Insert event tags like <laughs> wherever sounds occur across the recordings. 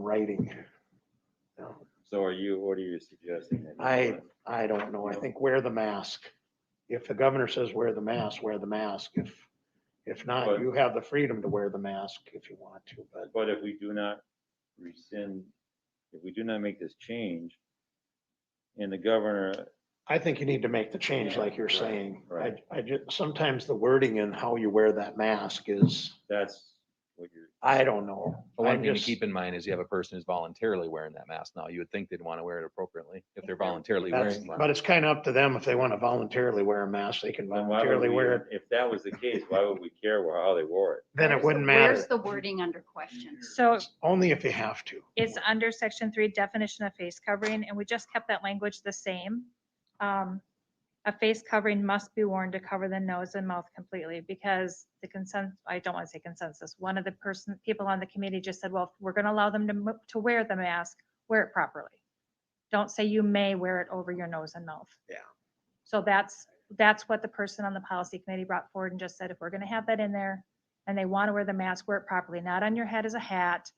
writing. So are you, what are you suggesting? then? I- I don't know. I think wear the mask. If the governor says wear the mask, wear the mask. If, if not, But- you have the freedom to wear the mask if you want to, but But if we do not rescind, if we do not make this change, and the governor, I think you need to make the change Yeah, like you're right, saying. I, right. I just, sometimes the wording and how you wear that mask is, that's what you're, I don't know. But One I'm thing to just- keep in mind is you have a person who's voluntarily wearing that mask now. You would think they'd want to wear it appropriately if they're voluntarily That's, wearing but one. it's kind of up to them. If they want to voluntarily wear a mask, they can then why would voluntarily we- wear it. If that was the case, why would we care wh- how they wore it? Then Where's it the- wouldn't Where's matter. the wording under question? So Only if you have to. it's under section three definition of face covering, and we just kept that language the same. Um, A face covering must be worn to cover the nose and mouth completely because the consent, I don't want to say consensus. One of the person, people on the committee just said, well, if we're going to allow them to, mo- to wear the mask, wear it properly. Don't say you may wear it over your nose and mouth. Yeah. So that's, that's what the person on the policy committee brought forward and just said, if we're going to have that in there and they want to wear the mask, wear it properly, not on your head as a hat.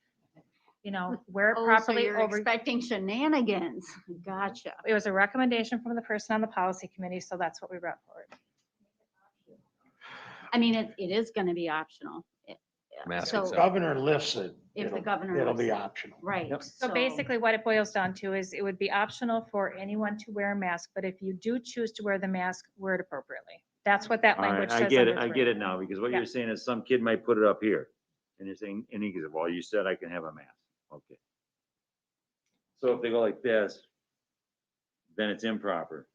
<laughs> You know, wear it Oh, so properly you're over expecting shenanigans. <laughs> Gotcha. it was a recommendation from the person on the policy committee, so that's what we brought forward. I mean, it, it is gonna be optional. It- yeah. Mask So itself. Governor lifts it. if the it'll- governor. It'll be lets it. optional. Right. So basically what it boils down to is it would be optional for anyone to wear a mask, but if you do choose to wear the mask, wear it appropriately. That's what that All right, language says. I get it, under I three. get it now, because what Yeah. you're saying is some kid might put it up here, and you're saying, and he goes, well, you said I can have a mask, okay. So if they go like this, then it's improper.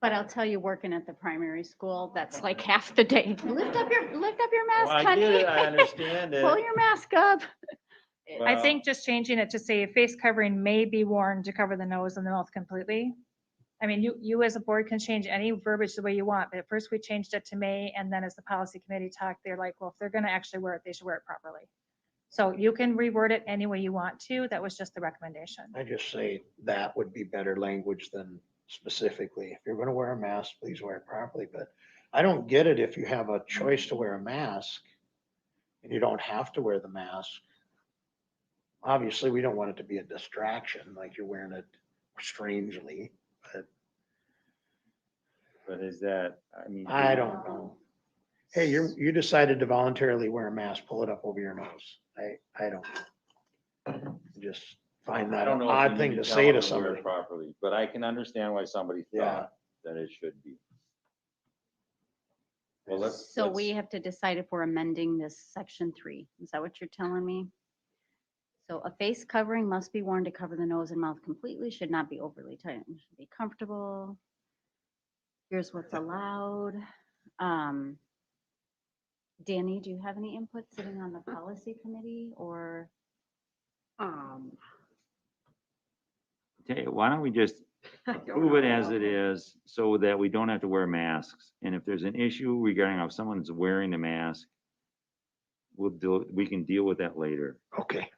But I'll tell you, working at the primary school, that's like <laughs> half the <laughs> day. Lift up your, lift up your Well, mask, Oh, I get honey. <laughs> it, I understand <laughs> it. Pull your mask up. I Well, think just changing it to say a face covering may be worn to cover the nose and the mouth completely. I mean, you, you as a board can change any verbiage the way you want, but at first we changed it to may, and then as the policy committee talked, they're like, well, if they're gonna actually wear it, they should wear it properly. So you can reword it any way you want to. That was just the recommendation. I just say that would be better language than specifically, if you're gonna wear a mask, please wear it properly, but I don't get it if you have a choice to wear a mask and you don't have to wear the mask. Obviously, we don't want it to be a distraction, like you're wearing it strangely. But is that, I mean. I don't know. Hey, you, you decided to voluntarily wear a mask, pull it up over your nose. I, I don't. know. I Just find I that don't an know if you odd need thing to tell say them to wear it somebody. Properly, but I can understand why somebody Yeah. thought that it should be. Well, let's. So let's- we have to decide if we're amending this section three. Is that what you're telling me? So a face covering must be worn to cover the nose and mouth completely, should not be overly tight, and should be comfortable. Here's what's allowed. Um, Danny, do you have any input sitting on the policy committee or? Um, Tell you, why don't we just I don't Move it know. as it is, so that we don't have to wear masks, and if there's an issue regarding if someone's wearing a mask, we'll do, we can deal with that later. Okay, Does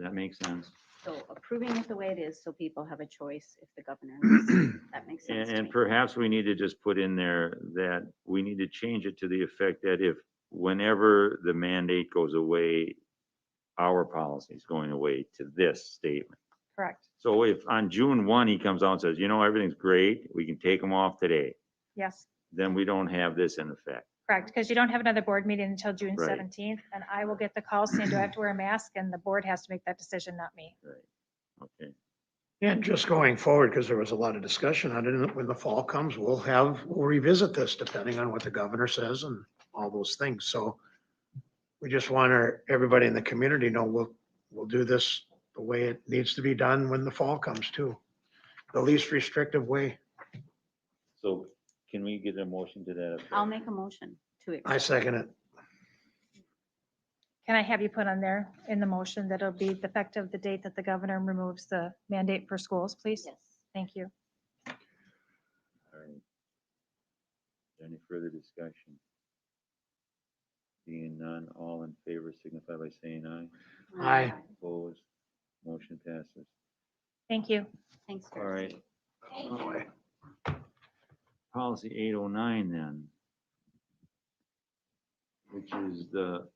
that make sense? So approving it the way it is, so people have a choice if the governor, leaves. that makes And, sense to and me. perhaps we need to just put in there that we need to change it to the effect that if, whenever the mandate goes away, our policy is going away to this statement. Correct. So if on June one, he comes out and says, you know, everything's great, we can take them off today, Yes, then we don't have this in effect. correct. Because you don't have another board meeting until June Right. seventeenth, and I will get the call saying, do I have to wear a mask? And the board has to make that decision, not me. Okay. and just going forward, because there was a lot of discussion on it, and when the fall comes, we'll have, we'll revisit this depending on what the governor says and all those things, so we just want our, everybody in the community to know we'll, we'll do this the way it needs to be done when the fall comes too. The least restrictive way. So can we get a motion to that? effect? I'll make a motion to it. I second it. Can I have you put on there in the motion that it'll be effective the date that the governor removes the mandate for schools, please? Yes. Thank you. All right. Any further discussion? Being none, all in favor signify by saying aye. Aye. Opposed, motion passes. Thank you. Thanks, All Darcy. right. Policy eight oh nine then. Which is the